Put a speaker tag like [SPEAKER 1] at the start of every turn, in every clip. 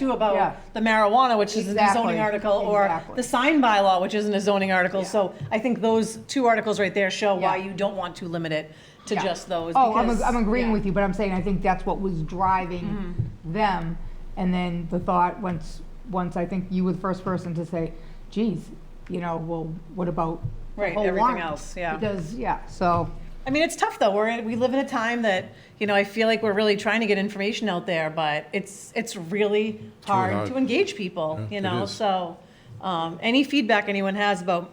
[SPEAKER 1] too
[SPEAKER 2] Yeah.
[SPEAKER 1] about the marijuana, which isn't a
[SPEAKER 2] Exactly,
[SPEAKER 1] zoning article, or
[SPEAKER 2] exactly.
[SPEAKER 1] the sign bylaw, which isn't a zoning article.
[SPEAKER 2] Yeah.
[SPEAKER 1] So I think those two articles right there show why
[SPEAKER 2] Yeah.
[SPEAKER 1] you don't want to limit it to
[SPEAKER 2] Yeah.
[SPEAKER 1] just those.
[SPEAKER 2] Oh, I'm,
[SPEAKER 1] because-
[SPEAKER 2] ag- I'm
[SPEAKER 1] yeah.
[SPEAKER 2] agreeing
[SPEAKER 1] Mm-hmm.
[SPEAKER 2] with you, but I'm saying I think that's what was driving them. And then the thought, once, once I think you were the first person to say, geez, you know, well, what about the
[SPEAKER 1] Right,
[SPEAKER 2] whole
[SPEAKER 1] everything
[SPEAKER 2] warrant?"
[SPEAKER 1] else, yeah.
[SPEAKER 2] Because, yeah, so,
[SPEAKER 1] I mean, it's tough though. We're in, we live in a time that you know I feel like we're really trying to get information out there, but it's it's really hard,
[SPEAKER 3] hard.
[SPEAKER 1] to engage people.
[SPEAKER 3] Yeah,
[SPEAKER 1] you
[SPEAKER 3] it
[SPEAKER 1] know,
[SPEAKER 3] is.
[SPEAKER 1] so um, any feedback anyone has about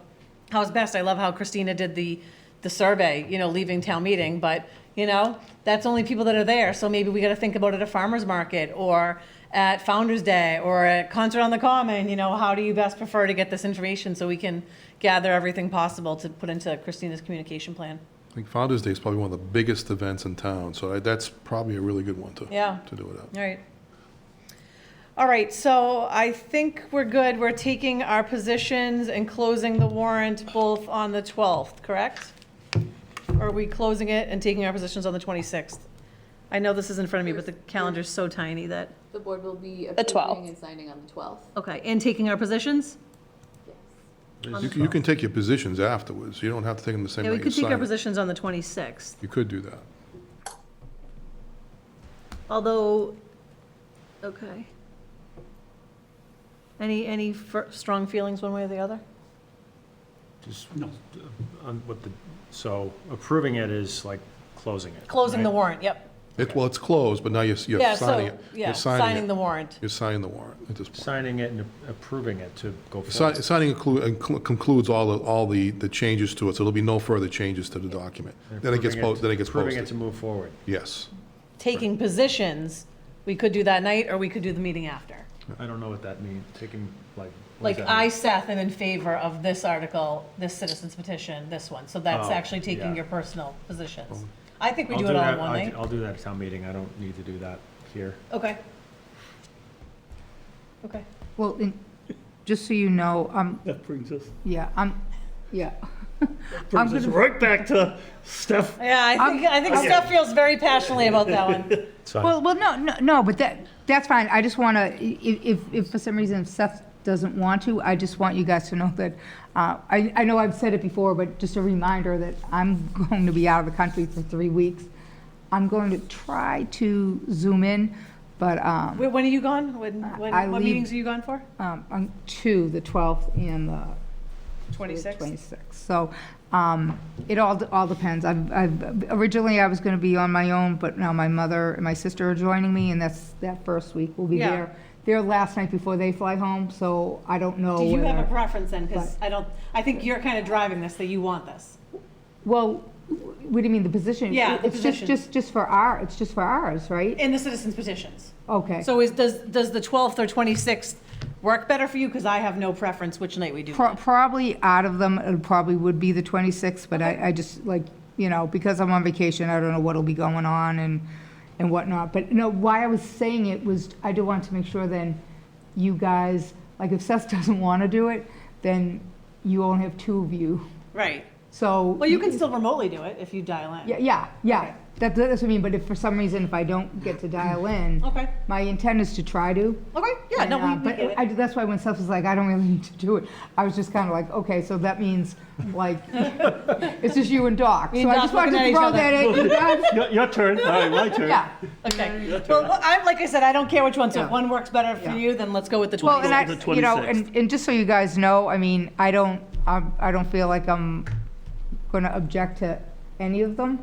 [SPEAKER 1] how's best, I love how Christina did the the survey. You know, leaving town meeting, but you know that's only people that are there. So maybe we got to think about it at farmers market or at Founders Day or at concert on the Common. You know, how do you best prefer to get this information so we can gather everything possible to put into Christina's communication plan.
[SPEAKER 3] I think Founder's Day is probably one of the biggest events in town, so I- that's probably a really good one to,
[SPEAKER 1] Yeah.
[SPEAKER 3] to do it at.
[SPEAKER 1] All right. All right, so I think we're good. We're taking our positions and closing the warrant both on the 12th, correct? Or are we closing it and taking our positions on the 26th? I know this is in front of me, but the calendar's so tiny that,
[SPEAKER 4] The board will be
[SPEAKER 5] The 12th.
[SPEAKER 4] approving and signing on the 12th.
[SPEAKER 1] okay, and taking our positions?
[SPEAKER 3] You can, you can take your positions afterwards, you don't have to take them the same
[SPEAKER 1] Yeah,
[SPEAKER 3] night
[SPEAKER 1] we
[SPEAKER 3] you
[SPEAKER 1] could take our
[SPEAKER 3] sign it.
[SPEAKER 1] positions on the 26th,
[SPEAKER 3] You could do that.
[SPEAKER 1] although, okay. Any, any fir- strong feelings one way or the other?
[SPEAKER 6] Just, uh, on what the, so approving it is like closing it.
[SPEAKER 1] Closing the
[SPEAKER 6] right?
[SPEAKER 1] warrant, yep.
[SPEAKER 3] It, well, it's closed, but now you're, you're
[SPEAKER 1] Yeah,
[SPEAKER 3] signing
[SPEAKER 1] so,
[SPEAKER 3] it. You're
[SPEAKER 1] yeah, signing
[SPEAKER 3] it.
[SPEAKER 1] the warrant.
[SPEAKER 3] You're signing the warrant at this point.
[SPEAKER 6] Signing it and approving it to go
[SPEAKER 3] Si-
[SPEAKER 6] forward.
[SPEAKER 3] Signing inclu- inclu- concludes all, the- all the, the changes to it, so there'll be no further changes to the document. Then it gets
[SPEAKER 6] Approving
[SPEAKER 3] posted, then it gets
[SPEAKER 6] Approving it to
[SPEAKER 3] posted.
[SPEAKER 6] move forward.
[SPEAKER 3] Yes.
[SPEAKER 1] taking positions, we could do that night, or we could do the meeting after.
[SPEAKER 6] I don't know what that means, taking, like. what
[SPEAKER 1] Like,
[SPEAKER 6] does that
[SPEAKER 1] I,
[SPEAKER 6] mean?
[SPEAKER 1] Seth, am in favor of this article, this citizen's petition, this one, so that's
[SPEAKER 6] Oh,
[SPEAKER 1] actually taking
[SPEAKER 6] yeah. Oh.
[SPEAKER 1] your personal positions. I think we
[SPEAKER 6] I'll
[SPEAKER 1] do it all in
[SPEAKER 6] that-
[SPEAKER 1] one
[SPEAKER 6] I'll-
[SPEAKER 1] night.
[SPEAKER 6] I'll do that at town meeting, I don't need to do that here.
[SPEAKER 1] Okay. Okay.
[SPEAKER 2] well, in- just so you know, um,
[SPEAKER 7] That brings us,
[SPEAKER 2] yeah, I'm, yeah. I'm
[SPEAKER 7] brings us
[SPEAKER 2] gonna-
[SPEAKER 7] right back to Steph.
[SPEAKER 1] Yeah, I think, I think Steph feels very passionately about that one.
[SPEAKER 2] Well, well, no, no, no, but that, that's fine. I just want to, if, if for some reason Seth doesn't want to, I just want you guys to know that, uh, I, I know I've said it before, but just a reminder that I'm going to be out of the country for three weeks. I'm going to try to zoom in, but, um,
[SPEAKER 1] Wh- When are you gone? When,
[SPEAKER 2] I
[SPEAKER 1] when, what
[SPEAKER 2] leave-
[SPEAKER 1] meetings are you gone for?
[SPEAKER 2] um, on two, the 12th and the
[SPEAKER 1] Twenty-six?
[SPEAKER 2] 26th. So um, it all, all depends. I've, I've- originally, I was going to be on my own, but now my mother and my sister are joining me, and that's, that first week we will be
[SPEAKER 1] Yeah.
[SPEAKER 2] there. Their last night before they fly home, so I don't know
[SPEAKER 1] Do you have a
[SPEAKER 2] whether-
[SPEAKER 1] preference then? Because I don't, I think you're kind of driving this, that you want this.
[SPEAKER 2] Well, what do you mean, the position?
[SPEAKER 1] Yeah, the
[SPEAKER 2] It's just,
[SPEAKER 1] position.
[SPEAKER 2] just, just for our, it's just for ours, right?
[SPEAKER 1] In the citizens petitions.
[SPEAKER 2] Okay.
[SPEAKER 1] So is, does, does the 12th or 26th work better for you? Because I have no preference which night we do
[SPEAKER 2] Pro-
[SPEAKER 1] it.
[SPEAKER 2] Probably out of them, it probably would be the 26th, but I, I just like, you know, because I'm on vacation, I don't know what'll be going on and, and whatnot. But no, why I was saying it was, I do want to make sure then you guys, like if Seth doesn't want to do it, then you only have two of you.
[SPEAKER 1] Right.
[SPEAKER 2] So.
[SPEAKER 1] Well, you can still remotely do it if you dial in.
[SPEAKER 2] Yeah, yeah, yeah. That, that's what I mean, but if for some reason, if I don't get to dial in,
[SPEAKER 1] Okay,
[SPEAKER 2] my intent is to try to.
[SPEAKER 1] okay, yeah, no,
[SPEAKER 2] And, uh,
[SPEAKER 1] we- we
[SPEAKER 2] but
[SPEAKER 1] get
[SPEAKER 2] I,
[SPEAKER 1] it.
[SPEAKER 2] that's why when Seth was like, I don't really need to do it, I was just kind of like, okay, so that means like it's just you and Doc.
[SPEAKER 1] Me
[SPEAKER 2] so
[SPEAKER 1] and
[SPEAKER 2] I
[SPEAKER 1] Doc
[SPEAKER 2] just wanted
[SPEAKER 1] looking
[SPEAKER 2] to
[SPEAKER 1] at
[SPEAKER 2] throw
[SPEAKER 1] each
[SPEAKER 2] that at you guys.
[SPEAKER 7] Your, your turn, all right, my turn.
[SPEAKER 2] yeah.
[SPEAKER 1] Okay. Well, well, I'm, like I said, I don't care which one, so if
[SPEAKER 2] Yeah.
[SPEAKER 1] one works better for
[SPEAKER 2] Yeah.
[SPEAKER 1] you, then let's go with the
[SPEAKER 2] Well, and
[SPEAKER 1] 26th.
[SPEAKER 2] I,
[SPEAKER 7] The
[SPEAKER 2] you know,
[SPEAKER 7] 26th.
[SPEAKER 2] and, and just so you guys know, I mean, I don't, I'm, I don't feel like I'm going to object to any of them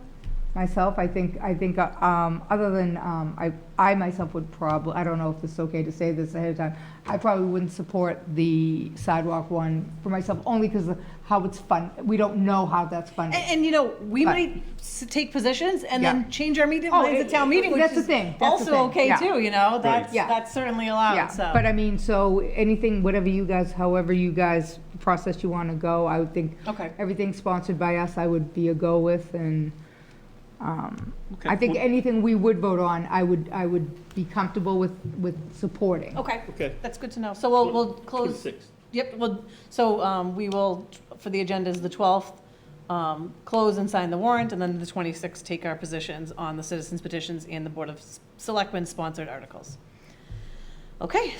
[SPEAKER 2] myself. I think, I think, uh, um, other than, um, I, I myself would probably, I don't know if this is okay to say this ahead of time. I probably wouldn't support the sidewalk one for myself only because of how it's fun. We don't know how that's
[SPEAKER 1] And,
[SPEAKER 2] funded.
[SPEAKER 1] and, you know, we
[SPEAKER 2] But-
[SPEAKER 1] might s- take positions and
[SPEAKER 2] Yeah.
[SPEAKER 1] then change our meeting
[SPEAKER 2] Oh,
[SPEAKER 1] plans
[SPEAKER 2] it-
[SPEAKER 1] at town meeting,
[SPEAKER 2] it-
[SPEAKER 1] which
[SPEAKER 2] that's the
[SPEAKER 1] is
[SPEAKER 2] thing, that's the
[SPEAKER 1] also
[SPEAKER 2] thing,
[SPEAKER 1] okay
[SPEAKER 2] yeah.
[SPEAKER 1] too, you know? That's,
[SPEAKER 2] Yeah.
[SPEAKER 1] that's certainly
[SPEAKER 2] Yeah,
[SPEAKER 1] allowed, eh, oh, so.
[SPEAKER 2] but uh, I mean, so anything, whatever you guys, however you guys process you want to go, I would think
[SPEAKER 1] Okay.
[SPEAKER 2] everything sponsored by us, I would be a go with, and um,
[SPEAKER 7] Okay,
[SPEAKER 2] I think
[SPEAKER 7] well-
[SPEAKER 2] anything we would vote on, I would, I would be comfortable with, with supporting.
[SPEAKER 1] Okay,
[SPEAKER 7] Okay.
[SPEAKER 1] that's good to know. So we'll, we'll close.
[SPEAKER 7] 26th.
[SPEAKER 1] Yep, well, so um, we will, for the agendas, the 12th, um, close and sign the warrant, and then the 26th, take our positions on the citizens petitions and the Board of Selectmen-sponsored articles. Okay,